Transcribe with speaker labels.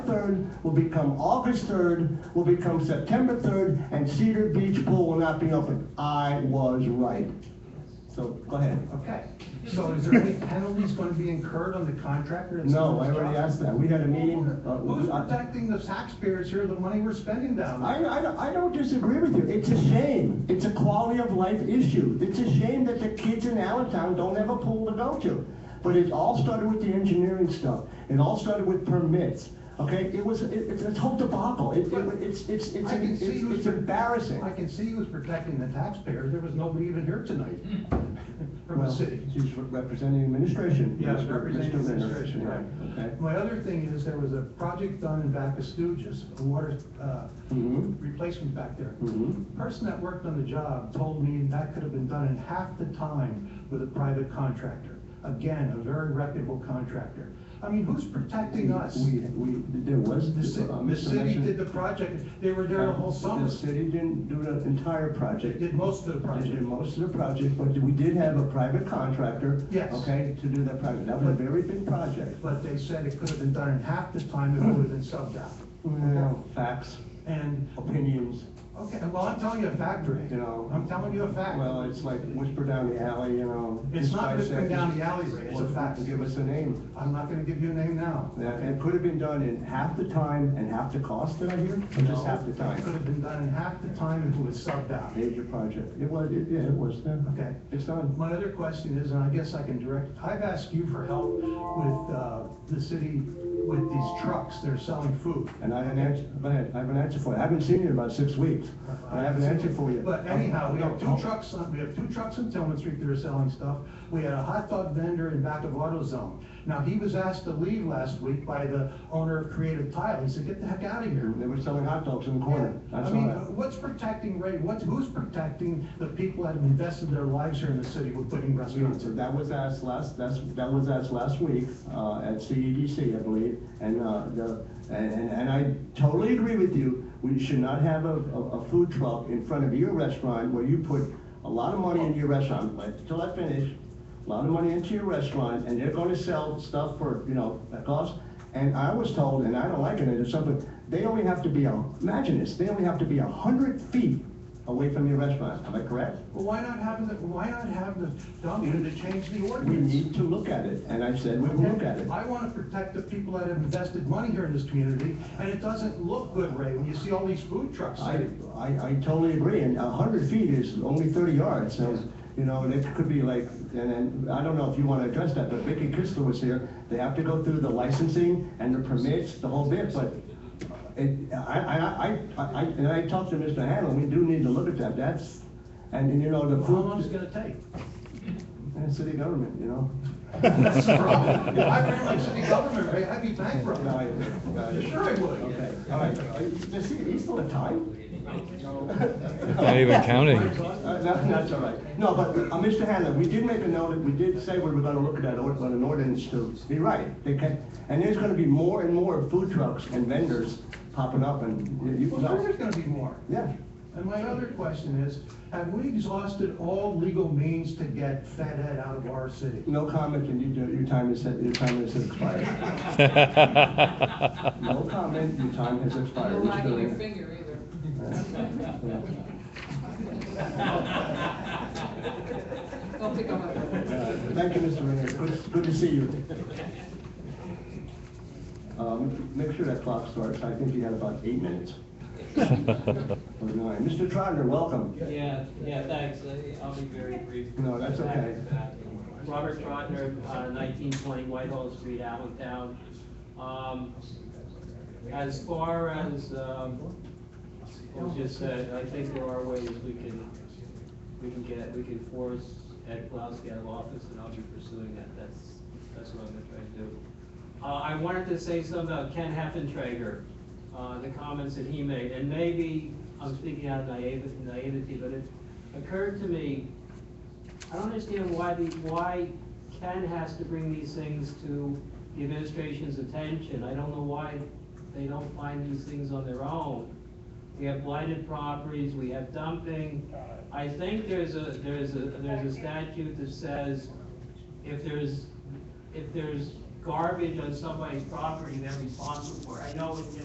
Speaker 1: 3rd, will become August 3rd, will become September 3rd, and Cedar Beach Pool will not be open. I was right. So, go ahead.
Speaker 2: Okay, so is there any penalties going to be incurred on the contractor? that's
Speaker 1: No,
Speaker 2: doing
Speaker 1: I
Speaker 2: this
Speaker 1: already
Speaker 2: job?
Speaker 1: asked that. We had a meeting. uh,
Speaker 2: Who's
Speaker 1: I-
Speaker 2: protecting the taxpayers here, the money we're spending down there?
Speaker 1: I, I, I don't disagree with you. It's a shame. It's a quality of life issue. It's a shame that the kids in Allentown don't have a pool to go to. But it all started with the engineering stuff. It all started with permits. Okay, it was it, it's a whole debacle. It, it, it's it's it's,
Speaker 2: I can
Speaker 1: it's,
Speaker 2: see
Speaker 1: it's,
Speaker 2: who's-
Speaker 1: embarrassing.
Speaker 2: I can see who's protecting the taxpayers, there was nobody even here tonight from the
Speaker 1: Hmm. Well,
Speaker 2: city.
Speaker 1: she's representing the administration.
Speaker 2: Yeah,
Speaker 1: Mr.
Speaker 2: representing
Speaker 1: Mr. Renner.
Speaker 2: administration, right.
Speaker 1: Yeah, Okay.
Speaker 2: My other thing is, there was a project done in back of Stooges, a water uh,
Speaker 1: Mm-hmm.
Speaker 2: replacement back there.
Speaker 1: Mm-hmm.
Speaker 2: Person that worked on the job told me that could have been done in half the time with a private contractor. Again, a very reputable contractor. I mean, who's protecting us?
Speaker 1: We, we, there was.
Speaker 2: The ci-
Speaker 1: uh,
Speaker 2: the
Speaker 1: Mr.
Speaker 2: city
Speaker 1: Messer-
Speaker 2: did the project, they were there the whole summer,
Speaker 1: The city didn't do the entire
Speaker 2: they
Speaker 1: project.
Speaker 2: did most of the
Speaker 1: I
Speaker 2: project.
Speaker 1: did most of the project, but we did have a private contractor.
Speaker 2: Yes.
Speaker 1: Okay, to do that project. That was a very big project.
Speaker 2: But they said it could have been done in half the time if it would have been subbed out.
Speaker 1: Well, Facts,
Speaker 2: And,
Speaker 1: opinions,
Speaker 2: okay, well, I'm telling you a fact, Rick.
Speaker 1: you know.
Speaker 2: I'm telling you a fact.
Speaker 1: Well, it's like whisper down the alley, you know.
Speaker 2: It's
Speaker 1: this
Speaker 2: not
Speaker 1: guy
Speaker 2: whispering
Speaker 1: said this-
Speaker 2: down the alley, Ray, it's a
Speaker 1: Well,
Speaker 2: fact.
Speaker 1: Give us a name.
Speaker 2: I'm not gonna give you a name now.
Speaker 1: That- It could have been done in half the time and half the cost, did I hear? Or just half the
Speaker 2: It could
Speaker 1: time?
Speaker 2: have been done in half the time if it was subbed out.
Speaker 1: Major project. It was, it- yeah, it was, yeah.
Speaker 2: Okay.
Speaker 1: It's done.
Speaker 2: My other question is, and I guess I can direct, I've asked you for help with, uh, the city, with these trucks, they're selling food.
Speaker 1: And I haven't answered, go ahead, I haven't answered for you. I haven't seen you in about six weeks. And I haven't answered for you.
Speaker 2: But anyhow, we have two
Speaker 1: No,
Speaker 2: trucks, on- we have two trucks in Tillman Street that are selling stuff. We had a hot dog vendor in back of AutoZone. Now, he was asked to leave last week by the owner of Creative Tile. He said, get the heck out of here.
Speaker 1: They were selling hot dogs in the corner. I
Speaker 2: I
Speaker 1: saw
Speaker 2: mean,
Speaker 1: that.
Speaker 2: what's protecting Ray? What's, who's protecting the people that have invested their lives here in the city with putting restaurants
Speaker 1: So
Speaker 2: in?
Speaker 1: that was asked last, that's, that was asked last week, uh, at CEDC, I believe, and, uh, the, and, and- and I totally agree with you. We should not have a, a, a food truck in front of your restaurant where you put a lot of money into your restaurant, Wait till I finish, a lot of money into your restaurant, and they're gonna sell stuff for, you know, a cost. And I was told, and I don't like it, it's something, they only have to be, a- imagine this, they only have to be a hundred feet away from your restaurant, am I correct?
Speaker 2: Well, why not have the, why not have the dumpster to change the
Speaker 1: We
Speaker 2: ordinance?
Speaker 1: need to look at it, and I said, we will look at it.
Speaker 2: I want to protect the people that have invested money here in this community, and it doesn't look good, Ray, when you see all these food trucks.
Speaker 1: I, I, I totally agree, and a hundred feet is only thirty yards, so, you know, and it could be like, and then, I don't know if you wanna address that, but Vicky Kistler was here, they have to go through the licensing and the permits, the whole bit, but it, I, I, I, I, and I talked to Mr. Hanlon, we do need to look at that, that's, and, and you know, the
Speaker 2: How long is it
Speaker 1: food,
Speaker 2: gonna take?
Speaker 1: and city government, you know?
Speaker 2: That's the problem. If I ran like city government, Ray, I'd be bankrupt.
Speaker 1: No, I- no, I-
Speaker 2: Sure I would.
Speaker 1: Okay, all right, is he still a time?
Speaker 3: Not even counting.
Speaker 1: Uh, that- That's all right. No, but, uh, Mr. Hanlon, we did make a note, that we did say we were gonna look at that, or- at an ordinance to be right. They can, and there's gonna be more and more food trucks and vendors popping up and you, you-
Speaker 2: Well, sure there's gonna be more.
Speaker 1: yeah.
Speaker 2: And my other question is, have we exhausted all legal means to get Fed Ed out of our city?
Speaker 1: No comment, and you, your time is, your time has expired. No comment, your time has
Speaker 4: You're
Speaker 1: expired.
Speaker 4: wagging your
Speaker 1: Mr.
Speaker 4: finger either.
Speaker 1: Hanlon.
Speaker 4: Don't pick on my.
Speaker 1: Uh, Thank you, Mr. Renner. Good, good to see you. Um, make sure that clock starts. I think you had about eight minutes. Or nine. Mr. Trotter, welcome.
Speaker 5: Yeah, yeah, thanks. I- I'll be very brief.
Speaker 1: No, that's okay.
Speaker 5: Robert Trotner, uh, 1920 Whitehall Street, Allentown. Um, As far as, um, as you said, I think there are ways we can, we can get, we can force Ed Plasky out of office, and I'll be pursuing that. That's, that's what I'm gonna try to do. Uh, I wanted to say something about Ken Heffentrager, uh, the comments that he made, and maybe I'm speaking out of naivety, naivety, but it occurred to me, I don't understand why the, why Ken has to bring these things to the administration's attention. I don't know why they don't find these things on their own. We have blighted properties, we have dumping. I think there's a, there's a, there's a statute that says if there's, if there's garbage on somebody's property, they're responsible for it. I know in